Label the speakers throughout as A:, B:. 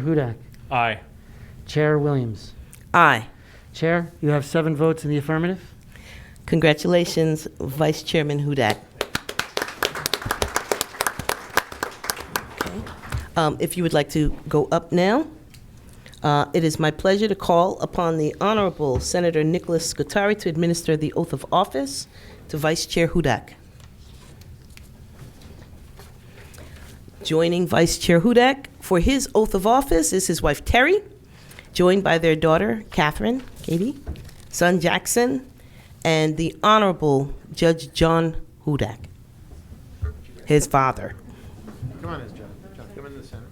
A: Hudak.
B: Aye.
A: Chair Williams.
C: Aye.
A: Chair, you have seven votes in the affirmative.
C: Congratulations, Vice Chairman Hudak. Okay. Um, If you would like to go up now, uh, it is my pleasure to call upon the Honorable Senator Nicholas Scutari to administer the oath of office to Vice Chair Hudak. Joining Vice Chair Hudak for his oath of office is his wife Terry, joined by their daughter Catherine, Katie, son Jackson, and the Honorable Judge John Hudak, his father.
D: Come on, in, John. John, come in the center.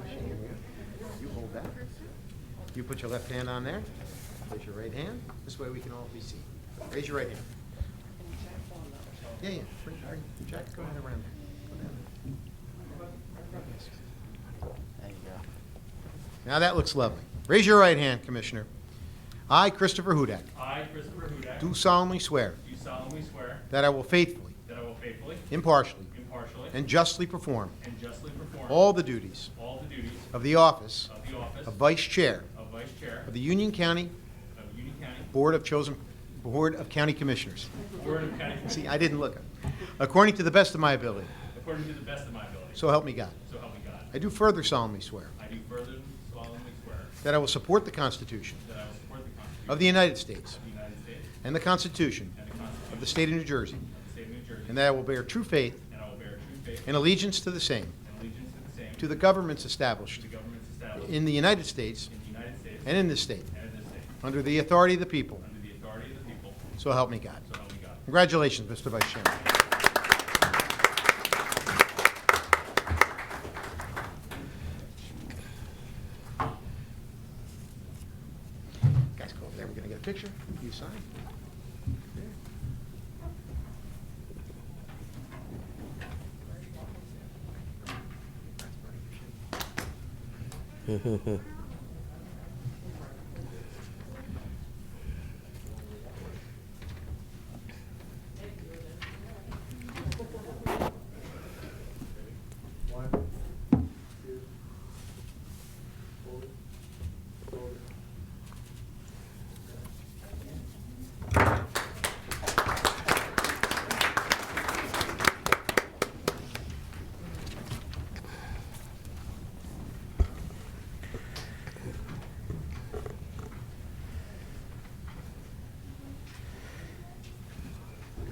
D: You hold that. You put your left hand on there. Raise your right hand. This way we can all be seen. Raise your right hand. Yeah, yeah. Bring, bring. Jack, go ahead around there. Go down there. Yes. There you go. Now that looks lovely. Raise your right hand, Commissioner. I, Christopher Hudak,
B: I, Christopher Hudak,
D: do solemnly swear
B: do solemnly swear
D: that I will faithfully,
B: that I will faithfully,
D: impartially,
B: impartially,
D: and justly perform
B: and justly perform
D: all the duties
B: all the duties
D: of the office
B: of the office
D: of Vice Chair
B: of Vice Chair
D: of the Union County
B: of Union County
D: Board of Chosen, Board of County Commissioners.
B: Board of County Commissioners
D: See, I didn't look up. According to the best of my ability,
B: according to the best of my ability,
D: so help me God.
B: so help me God.
D: I do further solemnly swear
B: I do further solemnly swear
D: that I will support the Constitution
B: that I will support the Constitution
D: of the United States
B: of the United States
D: and the Constitution
B: and the Constitution
D: of the State of New Jersey,
B: of the State of New Jersey,
D: and that I will bear true faith
B: and I will bear true faith
D: and allegiance to the same,
B: and allegiance to the same,
D: to
B: to
D: the governments established
B: the governments established
D: in the United States
B: in the United States
D: and in this state,
B: and in this state,
D: under the authority of the people,
B: under the authority of the people,
D: so help me God.
B: so help me God.
D: Congratulations, Mr. Vice Chairman. Guys, go over there, we're gonna get a picture, you sign.
E: One, two, forward, forward.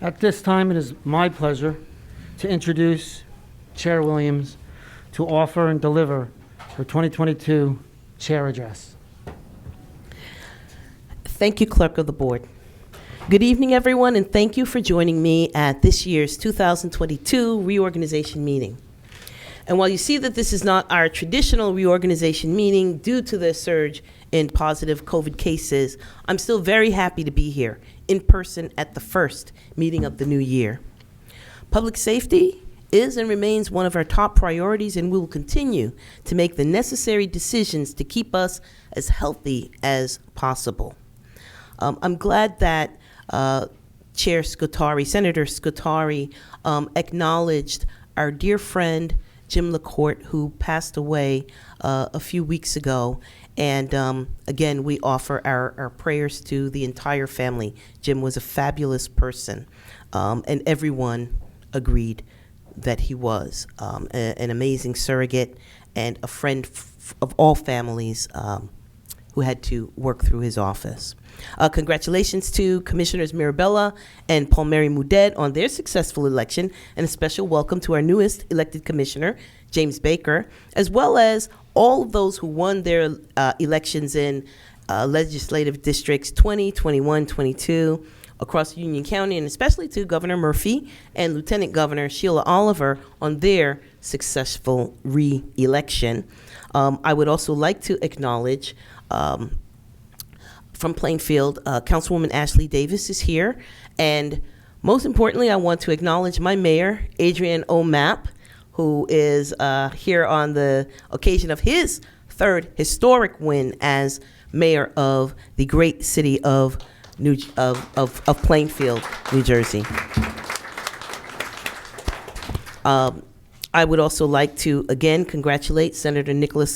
A: At this time, it is my pleasure to introduce Chair Williams to offer and deliver her 2022 Chair Address.
C: Thank you, Clerk of the Board. Good evening, everyone, and thank you for joining me at this year's 2022 reorganization meeting. And while you see that this is not our traditional reorganization meeting due to the surge in positive COVID cases, I'm still very happy to be here in person at the first meeting of the new year. Public safety is and remains one of our top priorities, and we will continue to make the necessary decisions to keep us as healthy as possible. Um, I'm glad that uh, Chair Scutari, Senator Scutari, um, acknowledged our dear friend Jim LaCourte, who passed away uh, a few weeks ago. And um, again, we offer our, our prayers to the entire family. Jim was a fabulous person, um, and everyone agreed that he was um, a- an amazing surrogate and a friend f- of all families. Um, who had to work through his office. Uh, congratulations to Commissioners Mirabella and Palmieri Mudet on their successful election, and a special welcome to our newest elected commissioner, James Baker, as well as all of those who won their uh, elections in uh, legislative districts 20, 21, 22 across Union County, and especially to Governor Murphy and Lieutenant Governor Sheila Oliver on their successful re-election. Um, I would also like to acknowledge um, from Plainfield, uh, Councilwoman Ashley Davis is here, and most importantly, I want to acknowledge my mayor, Adrian O'Map, who is uh, here on the occasion of his third historic win as mayor of the great city of New of, of, of Plainfield, New Jersey. Um, I would also like to again congratulate Senator Nicholas